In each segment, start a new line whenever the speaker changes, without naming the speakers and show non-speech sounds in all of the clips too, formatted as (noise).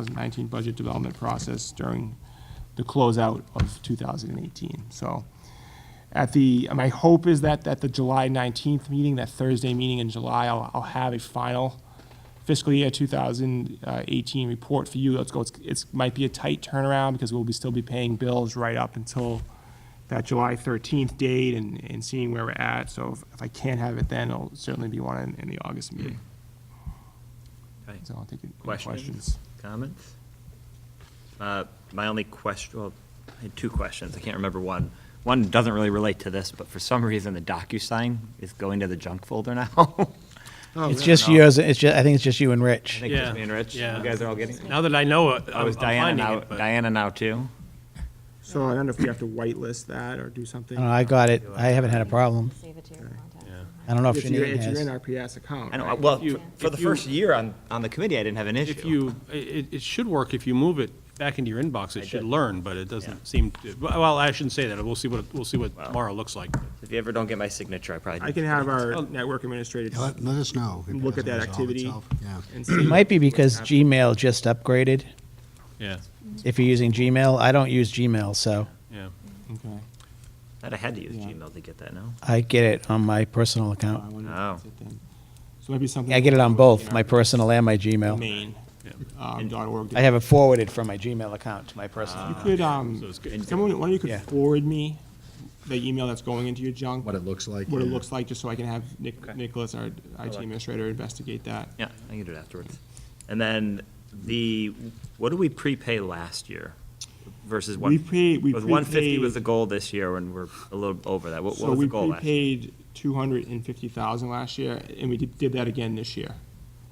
2019 budget development process during the closeout of 2018. So at the, my hope is that at the July 19th meeting, that Thursday meeting in July, I'll, I'll have a final fiscal year 2018 report for you. Let's go, it's, it's, might be a tight turnaround because we'll be, still be paying bills right up until that July 13th date and, and seeing where we're at. So if- if I can't have it then, it'll certainly be one in, in the August meeting.
Okay.
So I'll take any
Questions?
questions.
Comments? Uh, My only question, well, I had two questions, I can't remember one. One doesn't really relate to this, but for some reason, the DocuSign is going to the junk folder now. (laughs)
It's just you as, it's just, I think it's just you and
I
Rich.
think just
Yeah,
me and Rich, you
yeah.
guys are all getting it.
Now that I know it,
Oh,
I'm I'm
is Diana
finding
now,
it, but
Diana now too?
So I don't know if we have to whitelist that or do something.
I don't know, Uh, I got it. I haven't had a problem.
Save it to your contacts.
I don't know if
If you're,
Janine
if you're
has.
in our PS account,
I know,
right?
well,
If you-
for the
if you-
first year on, on the committee, I didn't have an issue.
if you, it, it should work if you move it back into your inbox,
I
it should
did.
learn, but it
Yeah.
doesn't seem, to well, I shouldn't say that, we'll see what, we'll see what
Well.
tomorrow looks like.
If you ever don't get my signature, I probably.
I can have our network administrator
Yeah, Let, let us know. if it
look at
doesn't
that
resolve
activity.
itself. Yeah.
and
It
see.
might be because Gmail just upgraded.
Yeah,
If you're using Gmail, I don't use Gmail, so
yeah.
Okay.
That I had to use
Yeah.
Gmail to get that now.
I get it on my personal
So I
account.
wonder if
Oh.
that's it then. So maybe something.
I get it on both, my
personal
personal and my Gmail.
Main,
Yeah.
um, dot org.
I have it forwarded from my Gmail account to my personal.
Uh,
You
account.
could,
So
um,
it's good.
someone, one of you could
Yeah.
forward me the email that's going into your junk.
What it looks like.
What it
yeah.
looks like, just so I can have Nick, Nicholas, our IT
like-
administrator, investigate that.
Yeah, I can do it afterwards. And then the, what did we prepay last year versus one?
We paid- we
was One fifty was
prepaid-
the goal this year, and we're a little over that. What, what
So
was the
we
goal last? year?
prepaid two hundred and fifty thousand last year, and we did, did that again this year.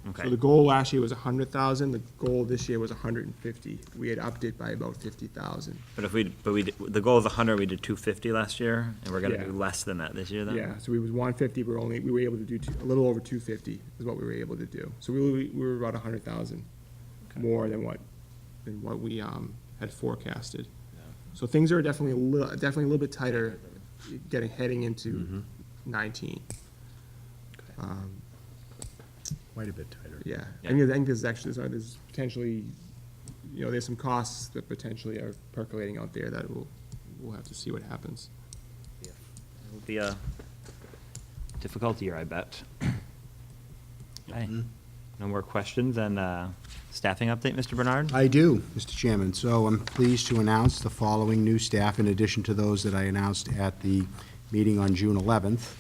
So the
Okay,
goal last year was a hundred thousand, the goal this year was a hundred and fifty. We had upped it by about fifty thousand.
but if we, but we, did- the goal is hundred, we did two fifty last year, and we're gonna
Yeah.
do less than that this year then?
Yeah, so we was one fifty, we were only, we were able to do two, a little over two fifty is what we were able to do. So we, were- we were about a hundred thousand more than what, than what we, um, had forecasted. So things are definitely a little, definitely a little bit tighter getting, heading
Mm-hmm.
into nineteen. Um,
Quite a bit tighter.
Yeah, I
Yeah.
think, I think there's actually, there's- there's potentially, you know, there's some costs that potentially are percolating out there that we'll, we'll have to see what happens.
It'll be a difficult year, I bet. Okay. No more questions, and, uh, staffing update, Mr. Bernard?
I do, Mr. Chairman. So I'm pleased to announce the following new staff in addition to those that I announced at the meeting on June 11th.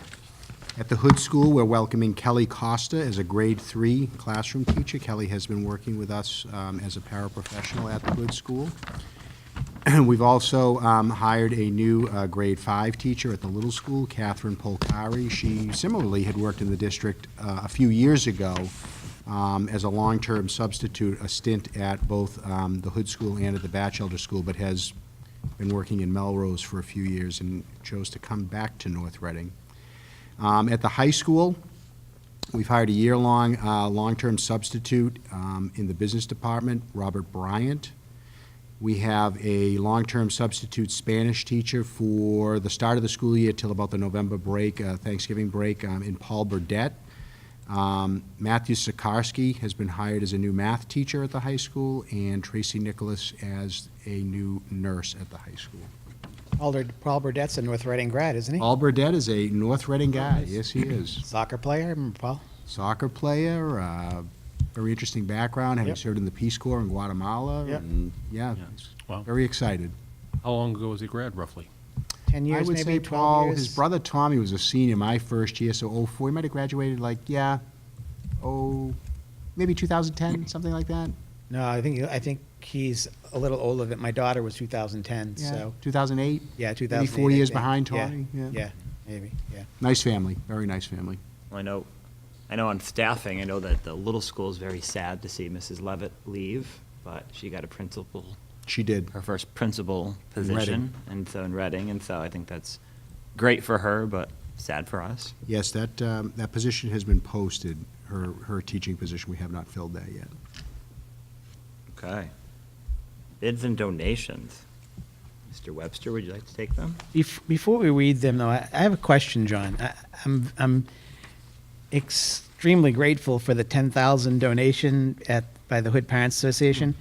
At the Hood School, we're welcoming Kelly Costa as a grade three classroom teacher. Kelly has been working with us um, as a paraprofessional at the Hood School. (clears throat) We've also um, hired a new uh, grade five teacher at the little school, Catherine Polcari. She similarly had worked in the district uh, a few years ago um, as a long-term substitute, a stint at both um, the Hood School and at the Batchelder School, but has been working in Melrose for a few years and chose to come back to North Reading. Um, At the high school, We've hired a year-long, uh, long-term substitute um, in the business department, Robert Bryant. We have a long-term substitute Spanish teacher for the start of the school year till about the November break, uh, Thanksgiving break, um, in Paul Burdette. Um, Matthew Sikarsky has been hired as a new math teacher at the high school, and Tracy Nicholas as a new nurse at the high school.
Alder, Paul Burdett's a North Reading grad, isn't he?
Paul Burdette is a North Reading guy, yes, he is
Soccer player, remember Paul?
soccer player, uh, very interesting background, having
Yep.
served in the Peace Corps in Guatemala.
Yep.
And yeah,
Wow.
very excited.
How long ago was he grad, roughly?
Ten
I
years,
would
maybe
say
twelve
Paul,
years?
his brother Tommy was a senior my first year, so '04. He might have graduated like, yeah, oh, maybe 2010, something like that.
No, I think, I think he's a little older than, my daughter was two thousand ten,
Yeah,
so,
2008.
yeah, two thousand.
Maybe four years behind Tommy. Yeah.
Yeah, maybe, yeah.
Nice family, very nice family.
Well, I know, I know on staffing, I know that the little school is very sad to see Mrs. Levitt leave, but she got a principal,
She did.
her first principal
Reading.
position, and so in Reading, and so I think that's great for her, but sad for us.
Yes, that um, that position has been posted. Her her teaching position. We have not filled that yet.
Okay. Bids and donations. Mr. Webster, would you like to take them?
Bef- Before we read them, though, I I have a question, John. I- I'm, I'm, extremely grateful for the ten thousand donation at, by the Hood Parents Association.